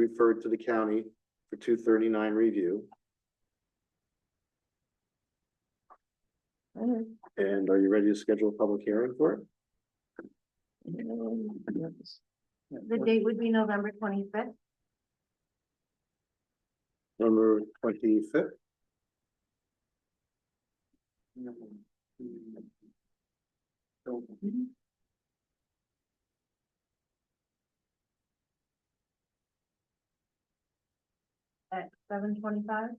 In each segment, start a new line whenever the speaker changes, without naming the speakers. referred to the county for two thirty-nine review. And are you ready to schedule a public hearing for it?
The date would be November twenty-fifth.
Number twenty-fifth?
At seven twenty-five?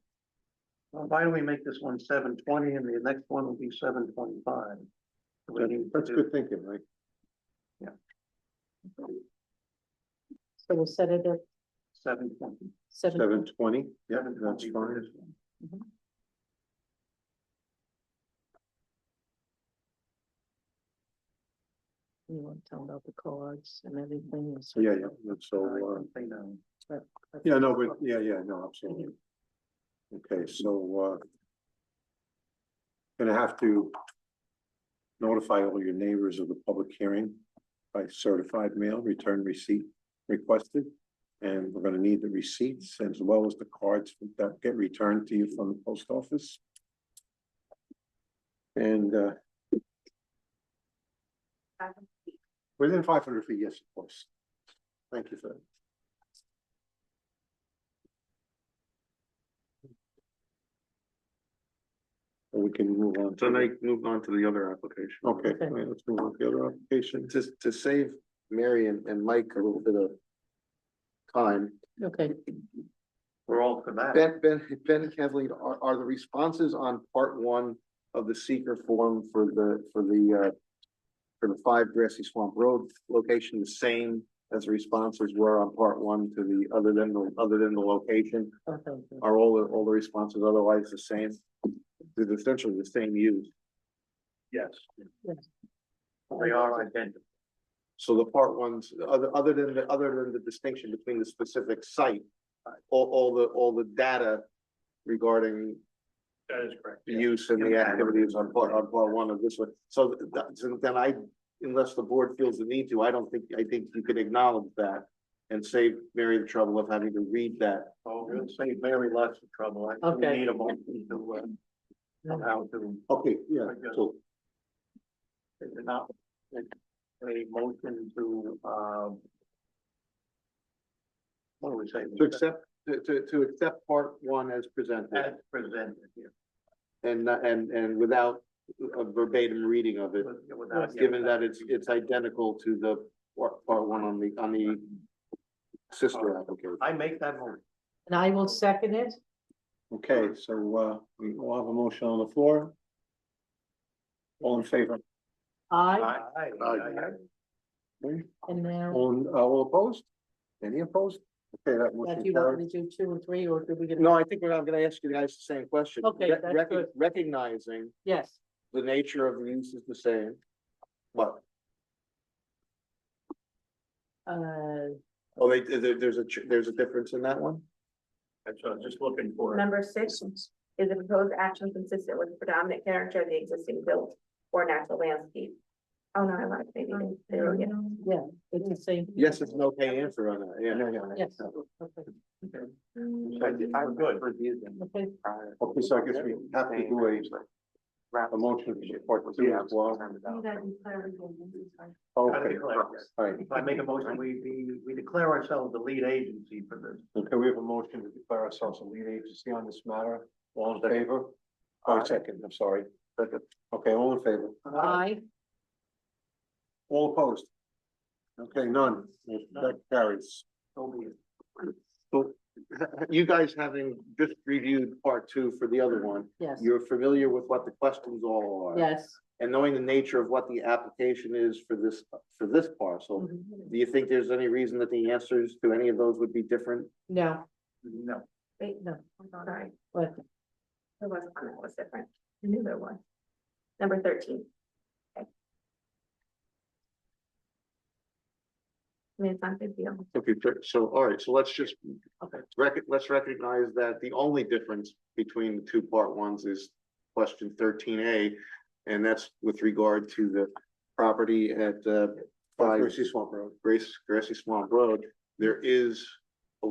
Why don't we make this one seven twenty and the next one will be seven twenty-five?
That's good thinking, right?
So we'll set it at
Seven twenty.
seven,
Seven twenty, yeah, that's fine.
you want to tell about the cards and everything. and so-
Yeah, yeah, that's so, uh, yeah, no, but, yeah, yeah, no, absolutely. Okay, so, uh. Gonna have to. Notify all your neighbors of the public hearing by certified mail, return receipt requested. And we're gonna need the receipts as well as the cards that get returned to you from the post office. And, uh, Within five hundred feet, yes, of course. Thank you for that. And We can move on. to
So
the-
now you move on to the other application.
Okay,
Okay.
all right, let's move on to the other application. Just to save Mary and, and Mike a little bit of time,
Okay,
We're all for that.
Ben, Ben, Ben and Kathleen, are, are the responses on part one of the seeker form for the, for the, uh, for the five grassy swamp road location the same as the responses were on part one to the, other than the, other than the location?
okay, good.
Are all, the all the responses otherwise the same? They're essentially the same use.
Yes.
Yes.
They are identical.
So the part ones, other, other than the, other than the distinction between the specific site, uh, all, all the, all the data regarding
That is correct.
the use and the
Yeah.
activities on part, on part one of this one. So th- that, so then I, unless the board feels the need to, I don't think, I think you can acknowledge that and save Mary the trouble of having to read that.
Oh, we'll save Mary lots of trouble. I think we
Okay.
need a motion to, uh, somehow to,
Okay, yeah, so
is it not, a a motion to, um, what do we say?
to accept, to, to, to accept part one as
As
presented
presented here. Uh,
and, and, and without a verbatim reading of it,
without-
given that it's, it's identical to the part, part one on the, on the sister application.
I make that motion.
and I will second it.
Okay, so, uh, we will have a motion on the floor. All in favor?
I,
Aye. Aye.
Aye.
Aye.
Okay.
and now,
All, uh, all opposed? Any opposed? Okay, that
if
motion
you want
carried.
me to do two and three, or do we get?
No, I think we're not gonna ask you guys the same question.
Okay,
Rec-
that's
rec-
good.
Recognizing
Yes,
the nature of the use is the same. But,
uh,
oh, they, there, there's a, ch- there's a difference in that one?
That's what I was just looking for.
Number six, is the proposed action consistent with the predominant character of the existing built or natural landscape? Oh, no, I want to say anything. There we go.
yeah, it's the same.
Yes, it's an okay answer on that, yeah.
Yes, okay,
I- I'm good.
okay,
Okay, so I guess we have to do a, a motion to support two as well.
You gotta be clear with me, I'm
Okay, all
Yes.
right.
I make a motion, we, we, we declare ourselves the lead agency for this.
Okay, we have a motion to declare ourselves a lead agency on this matter. All in favor? Oh, second, I'm sorry. Second. Okay, all in favor?
I,
All opposed? Okay, none. That carries.
So be it.
You guys having just reviewed part two for the other one,
yes,
you're familiar with what the questions all are.
yes.
And knowing the nature of what the application is for this, for this parcel,
Mm-hmm.
Mhm.
do you think there's any reason that the answers to any of those would be different?
No,
No.
Wait,
no,
sorry,
but
there was one that was different. I knew there was. Number thirteen. Okay. I mean, it's not a big deal.
Okay, so- so, all right, so let's just.
Okay.
Rec- let's recognize that the only difference between the two part ones is question thirteen A. And that's with regard to the property at uh. Grassy Swamp Road. Grace, Grassy Swamp Road, there is